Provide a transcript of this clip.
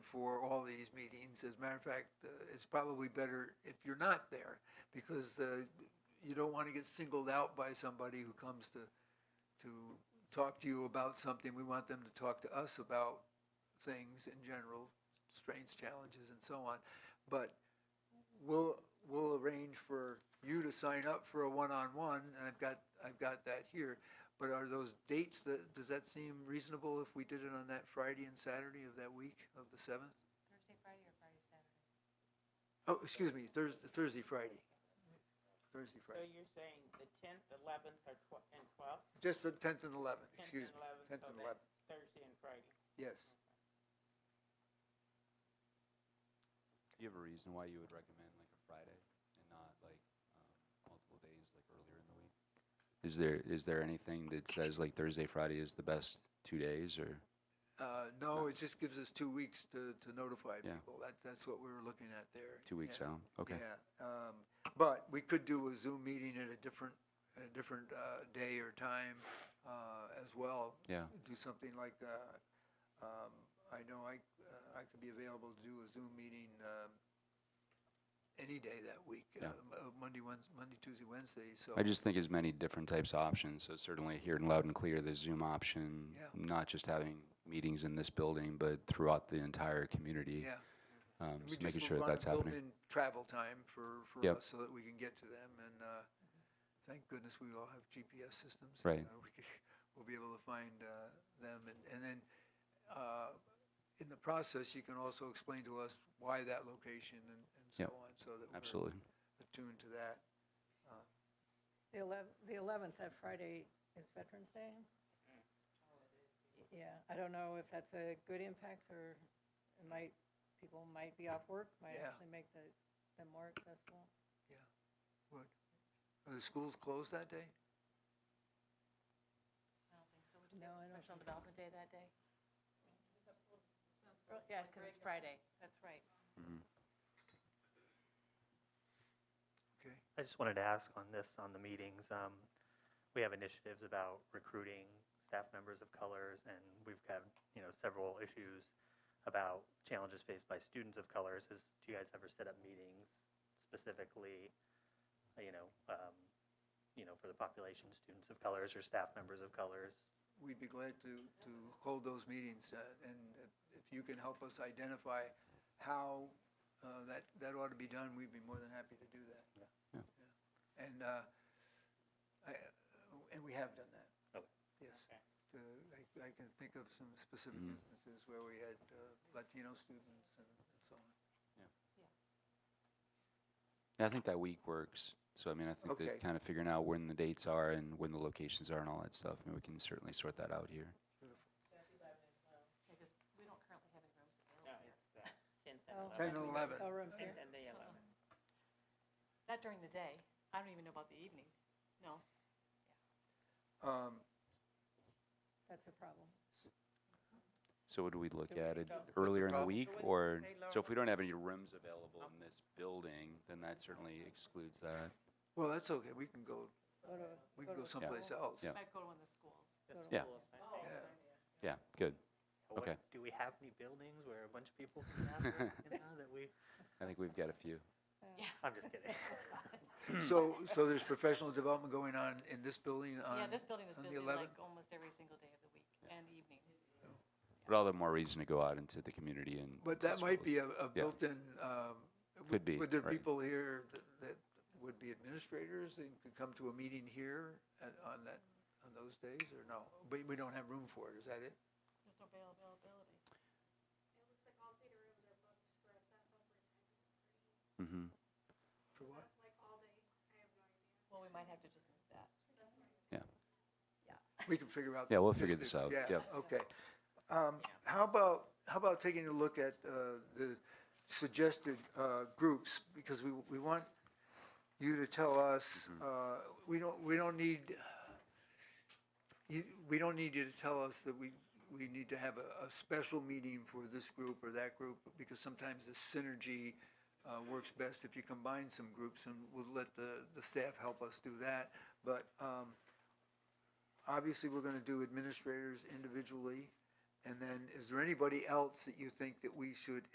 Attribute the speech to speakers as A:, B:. A: for all these meetings. As a matter of fact, uh, it's probably better if you're not there because uh, you don't want to get singled out by somebody who comes to, to talk to you about something. We want them to talk to us about things in general, strengths, challenges, and so on. But we'll, we'll arrange for you to sign up for a one-on-one, and I've got, I've got that here. But are those dates, that, does that seem reasonable if we did it on that Friday and Saturday of that week of the 7th?
B: Thursday, Friday, or Friday, Saturday?
A: Oh, excuse me, Thursday, Thursday, Friday. Thursday,
C: So
A: Friday.
C: you're saying the tenth, eleventh, or tw- and twelfth?
A: Just the 10th and 11th,
C: Tenth and
A: excuse me.
C: eleventh,
A: 10th
C: so
A: and 11th,
C: that's Thursday and Friday.
A: yes.
D: Do you have a reason why you would recommend like a Friday and not like um, multiple days like earlier in the week? Is there is there anything that says like Thursday, Friday is the best two days or?
A: Uh, No, it just gives us two weeks to, to notify
D: Yeah.
A: people. That, that's what we were looking at there.
D: Two weeks
A: Yeah.
D: out, okay.
A: Yeah, um, but we could do a Zoom meeting at a different, at a different uh, day or time uh, as well.
D: Yeah.
A: Do something like, uh, um, I know I, uh, I could be available to do a Zoom meeting um, any day that week, uh,
D: Yeah.
A: m- uh, Monday, Wednes- Monday, Tuesday, Wednesday, so.
D: I just think as many different types of options. So certainly hearing loud and clear, the Zoom option,
A: Yeah.
D: not just having meetings in this building, but throughout the entire community.
A: Yeah.
D: Um,
A: We
D: so
A: just
D: making sure
A: would wanna
D: that that's happening.
A: Build in travel time for, for
D: Yep.
A: us so that we can get to them. And uh, thank goodness we all have GPS systems.
D: Right.
A: You know, we can- We'll be able to find uh, them. And- And then uh, in the process, you can also explain to us why that location and and so
D: Yep.
A: on, so that we're
D: Absolutely.
A: attuned to that.
E: The 11th, the 11th, that Friday is Veterans Day? Yeah, I don't know if that's a good impact or it might, people might be off work, might
A: Yeah.
E: actually make the, them more accessible.
A: What- Are the schools closed that day?
B: I don't think so. Would you
E: No, I
B: have
E: don't
B: professional
E: think so.
B: development day that day? Well, Yeah, because it's Friday. That's right.
A: Okay.
F: I just wanted to ask on this, on the meetings, um, we have initiatives about recruiting staff members of colors, and we've got, you know, several issues about challenges faced by students of colors. Is, do you guys ever set up meetings specifically, uh, you know, um, you know, for the population, students of colors or staff members of colors?
A: We'd be glad to, to hold those meetings, uh, and if you can help us identify how uh, that, that ought to be done, we'd be more than happy to do that.
F: Yeah.
D: Yeah.
A: Yeah. And, uh, I, uh, and we have done that,
F: Okay.
A: yes.
C: Okay.
A: Uh, I, I can think of some specific
D: Mhm.
A: instances where we had uh, Latino students and and so on.
D: Yeah, I think that week works. So I mean, I think
A: Okay.
D: that kind of figuring out when the dates are and when the locations are and all that stuff, I mean, we can certainly sort that out here.
B: Because we don't currently have any rooms
C: No,
B: available here.
C: it's the tenth
E: Oh.
C: and
A: Ten and eleven.
C: eleventh.
E: Oh, rooms
C: Tenth
E: here.
C: and the eleventh.
B: Not during the day. I don't even know about the evening. No.
A: Um,
E: That's a problem.
D: So would we look
E: Do
D: at
E: we-
D: it
E: so- What's
D: earlier in the
A: problem?
D: week
C: So what-
D: or,
C: say
D: so
C: lower.
D: if we don't have any rooms available in this building, then that certainly excludes that.
A: Well, that's okay, we can go,
E: Go to-
A: we can go
E: to-
A: someplace else.
D: Yeah.
B: Might go to one of the schools.
C: The
D: Yeah.
C: schools, I think.
A: Yeah.
D: Yeah, good.
F: Oh. What-
D: Okay.
F: Do we have any buildings where a bunch of people can gather, you know, that we,
D: I think we've got a few.
F: I'm just kidding.
B: Hmm.
A: So, so there's professional development going on in this building on?
B: Yeah, this building is
A: on the
B: busy
A: 11th?
B: like almost every single day of the week and evening.
D: But all the more reason to go out into the community and.
A: But that might be a, a
D: Yeah.
A: built-in, um. would-
D: Could be,
A: Would there
D: right.
A: people here that, that would be administrators and could come to a meeting here at, on that, on those days, or no? We, we don't have room for it, is that it?
B: There's no availability.
G: It looks like all theater rooms are booked for a set over time.
D: hmm
A: For what?
G: Like all day, I have no idea.
B: Well, we might have to just move that.
D: yeah.
A: We can figure out.
D: Yeah,
A: the
D: we'll figure this
A: logistics.
D: out.
A: Yeah,
D: Yep.
A: okay. Um, how about, how about taking a look at, uh, the suggested, uh, groups? Because we, we want you to tell us,
D: Mm-hmm.
A: uh, we don't, we don't need, you, we don't need you to tell us that we, we need to have a, a special meeting for this group or that group, because sometimes the synergy uh, works best if you combine some groups, and we'll let the, the staff help us do that. But um, obviously, we're going to do administrators individually, And then, is there anybody else that you think that we should